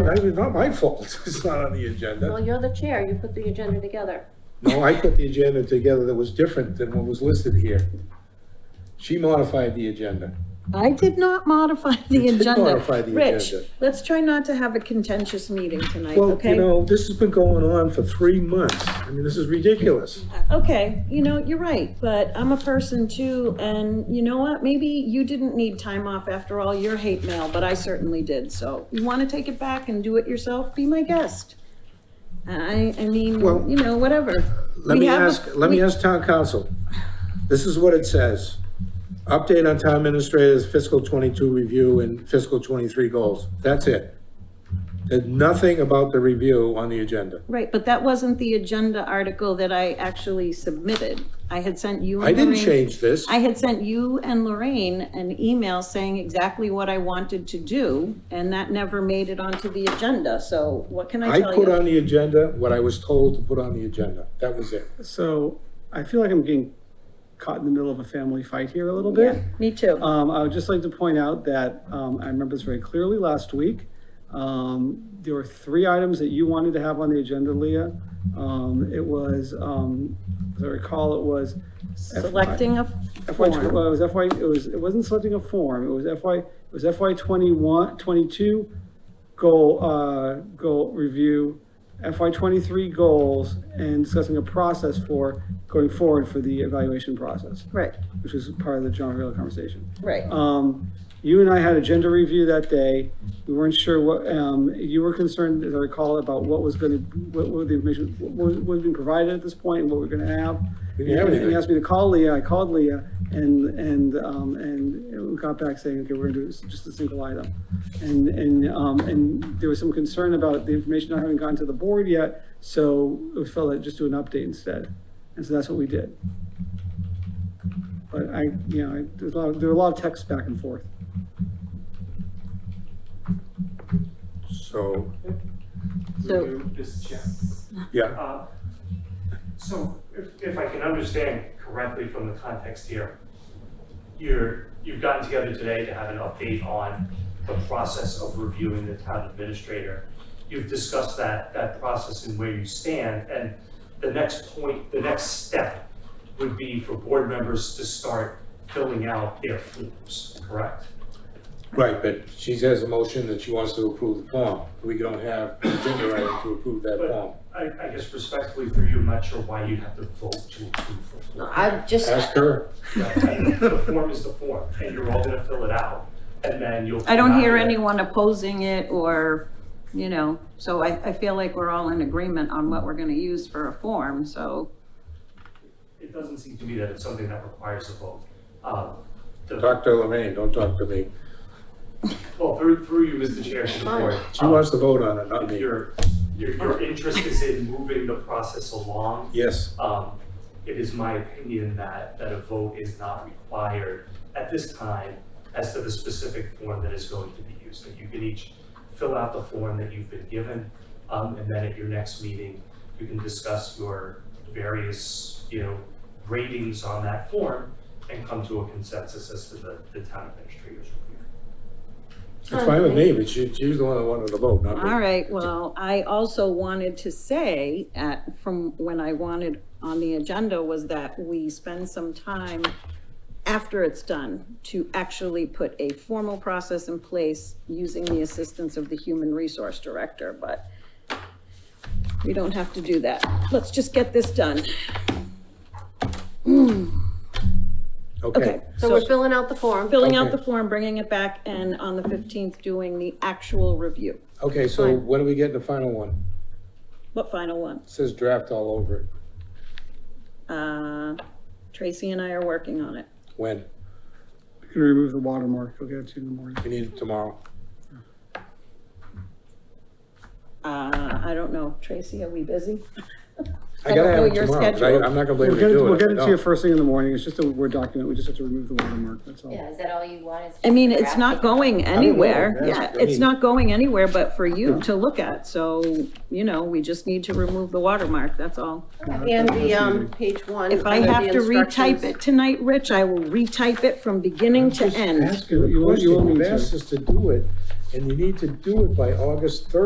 I, I, it's not my fault, it's not on the agenda. Well, you're the chair, you put the agenda together. No, I put the agenda together that was different than what was listed here. She modified the agenda. I did not modify the You did agenda. modify the Rich, agenda. let's try not to have a contentious meeting tonight, Well, you okay? know, this has been going on for three months. I mean, this is ridiculous. Okay, you know, you're right, but I'm a person too, and you know what? Maybe you didn't need time off after all your hate mail, but I certainly did, so you want to take it back and do it yourself, be my guest. I, I mean, Well, you know, whatever. Let We me have a- ask, let me we- ask town council. This is what it says. Update on town administrator's fiscal twenty-two review and fiscal twenty-three goals. That's it. There's nothing about the review on the agenda. Right, but that wasn't the agenda article that I actually submitted. I had sent you and I didn't Lorraine- change this. I had sent you and Lorraine an email saying exactly what I wanted to do, and that never made it onto the agenda, so what can I I tell put you? on the agenda what I was told to put on the agenda. That was it. So I feel like I'm getting caught in the middle of a family fight here a little bit. Me too. Um, I would just like to point out that, um, I remember this very clearly last week. Um, there were three items that you wanted to have on the agenda, Leah. Um, it was, um, as I recall, it was Selecting a FY, tw- form. well, it was FY, it was, it wasn't selecting a form, it was FY, it was FY 21, 22 goal, uh, goal review, FY twenty-three goals, and discussing a process for going forward for the evaluation process, Right, which was part of the John Real conversation. right. Uh, Um, you and I had a gender review that day. We weren't sure what, um, you were concerned, as I recall, about what was gonna, what, what the information, what was, what was being provided at this point and what we're gonna have. We didn't have And- And anything. he asked me to call Leah. I called Leah and, and, um, and we got back saying, okay, we're gonna do s- just a single item. And, and, um, and there was some concern about the information not having gotten to the board yet, so we felt like just do an update instead. And so that's what we did. But I, you know, I- there's a lot, there were a lot of texts back and forth. So, So, This chair. yeah. Uh, So if, if I can understand correctly from the context here, you're, you've gotten together today to have an update on the process of reviewing the town administrator. You've discussed that, that process and where you stand, and the next point, the next step would be for board members to start filling out their forms, correct? Right, but she has a motion that she wants to approve the form. We don't have an agenda item to approve that form. I, I guess respectfully for you, I'm not sure why you'd have to vote to approve the form. I just, Ask her. The form is the form, and you're all gonna fill it out, and then you'll. I don't hear come back anyone opposing it or, you know, so I, I feel like we're all in agreement on what we're gonna use for a form, so. with It It doesn't seem to me that it's something that requires a vote. Um, the- Talk to Lorraine, don't talk to me. Well, through, through you, Mr. Chair, to the board. She wants to vote on it, um, not me. Your, your, your interest is in moving the process along. Yes, Um, it is my opinion that, that a vote is not required at this time as to the specific form that is going to be used. That you can each fill out the form that you've been given, um, and then at your next meeting, you can discuss your various, you know, ratings on that form and come to a consensus as to the, the town administrator's review. Oh, it's fine with me, but she, she was the one that wanted to vote, not me. All right, well, I also wanted to say at, from when I wanted on the agenda was that we spend some time after it's done to actually put a formal process in place using the assistance of the Human Resource Director, but we don't have to do that. Let's just get this done. Okay, Okay. so we're filling out the form. Filling out Okay. the form, bringing it back, and on the 15th, doing the actual review. okay, so when do we get the final one? What final one? It says draft all over it. Uh, Tracy and I are working on it. When? We can remove the watermark. We'll get it to you in the morning. We need it tomorrow. Uh, I don't know, Tracy, are we busy? I gotta don't know have it your tomorrow, 'cause I, schedule. I'm not gonna blame We'll you to get it, do it. we'll get it Oh. I to you don't. first thing in the morning. It's just a Word document. We just have to remove the watermark, that's all. Yeah, is that all you wanted? I mean, it's not going know, anywhere, that's- yeah, I it's mean- not going anywhere but for you to look at, so, you know, we just need to remove the watermark, that's all. And the, um, page one. If I under the have to retype instructions. it tonight, Rich, I will retype it from beginning to Just end. Ask her the You won't- you question. won't You've need to. asked us to do it, and you need to do it by August third.